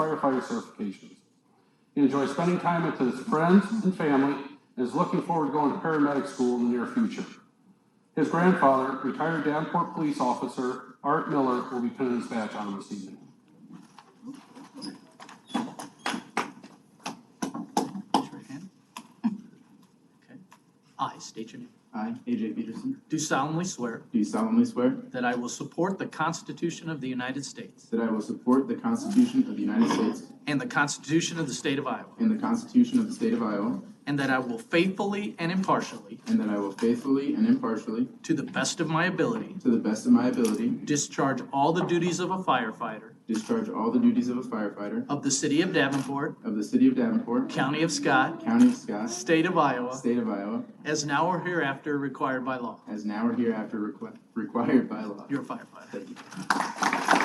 firefighter certifications. He enjoys spending time with his friends and family and is looking forward to going to paramedic school in the near future. His grandfather, retired Davenport police officer Art Miller, will be pinning his badge on him this evening. Raise your right hand. Okay. I state your name. I, AJ Peterson, Do solemnly swear do solemnly swear that I will support the Constitution of the United States that I will support the Constitution of the United States and the Constitution of the State of Iowa, and the Constitution of the State of Iowa, and that I will faithfully and impartially, and that I will faithfully and impartially, to the best of my ability, to the best of my ability, discharge all the duties of a firefighter discharge all the duties of a firefighter of the City of Davenport, of the City of Davenport, County of Scott, County of Scott, State of Iowa, State of Iowa, as now or hereafter required by law. as now or hereafter requ- required by law. You're a firefighter. Thank you.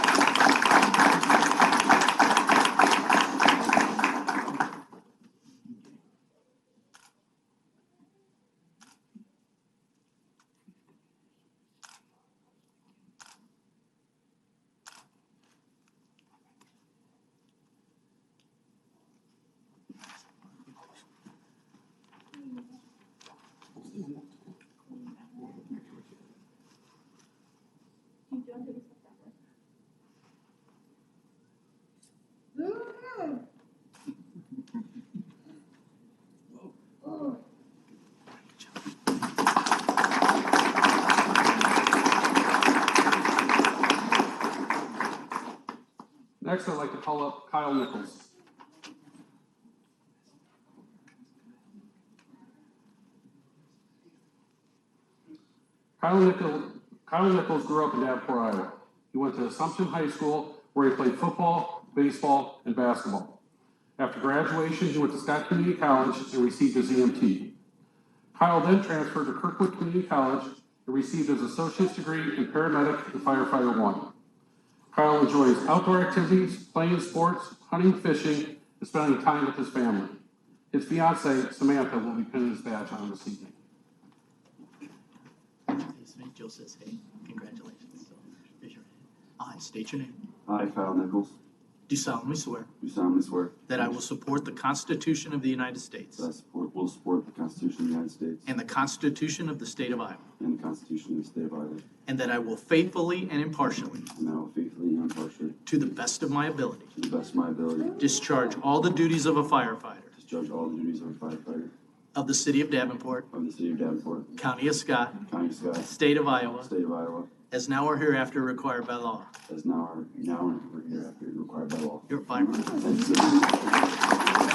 Next, I'd like to call up Kyle Nichols. Kyle Nichols, Kyle Nichols grew up in Davenport, Iowa. He went to Assumption High School where he played football, baseball, and basketball. After graduation, he went to Scott Community College and received his EMT. Kyle then transferred to Kirkwood Community College and received his associate's degree in paramedic and firefighter one. Kyle enjoys outdoor activities, playing sports, hunting, fishing, and spending time with his family. His fiancee, Samantha, will be pinning his badge on this evening. Jill says, hey, congratulations. So, raise your hand. I state your name. I, Kyle Nichols, Do solemnly swear do solemnly swear That I will support the Constitution of the United States that I support, will support the Constitution of the United States and the Constitution of the State of Iowa, and the Constitution of the State of Iowa, and that I will faithfully and impartially, and that I will faithfully and impartially, to the best of my ability, to the best of my ability, discharge all the duties of a firefighter discharge all the duties of a firefighter of the City of Davenport, of the City of Davenport, County of Scott, County of Scott, State of Iowa, State of Iowa, as now or hereafter required by law. as now are now and hereafter required by law. You're a firefighter. Thank you.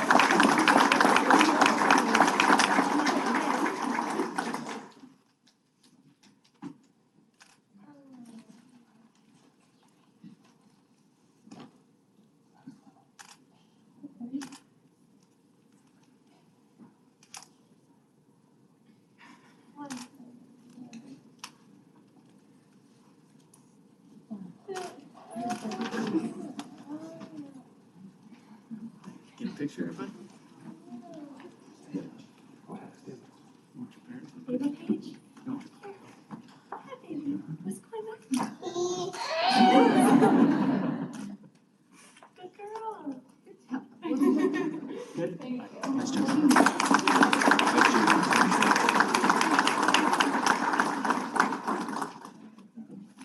Get a picture, everybody? Baby Paige? Hi, baby. What's going on? Good girl. Good job. Nice job.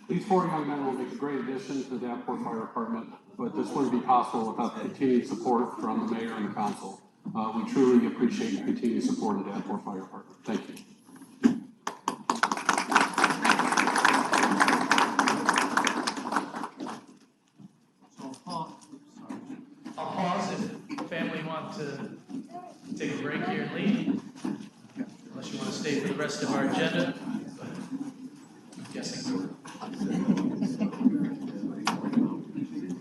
These four young men will make a great addition to the Davenport Fire Department, but this wouldn't be possible without the continued support from the mayor and the council. Uh, we truly appreciate your continued support of the Davenport Fire Department. Thank you. So, Paul, sorry. I'll pause if the family want to take a break here and leave. Unless you want to stay for the rest of our agenda, but I'm guessing. I'm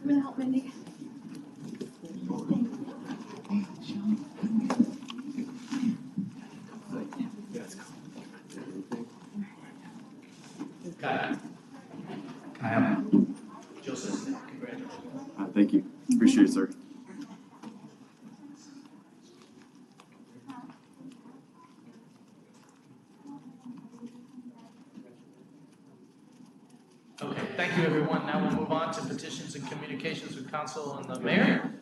gonna help Mindy. Kyle. Kyle. Joseph, congratulations. Uh, Thank you. Appreciate it, sir. Okay, thank you, everyone. Now we'll move on to petitions and communications with council and the mayor. Uh,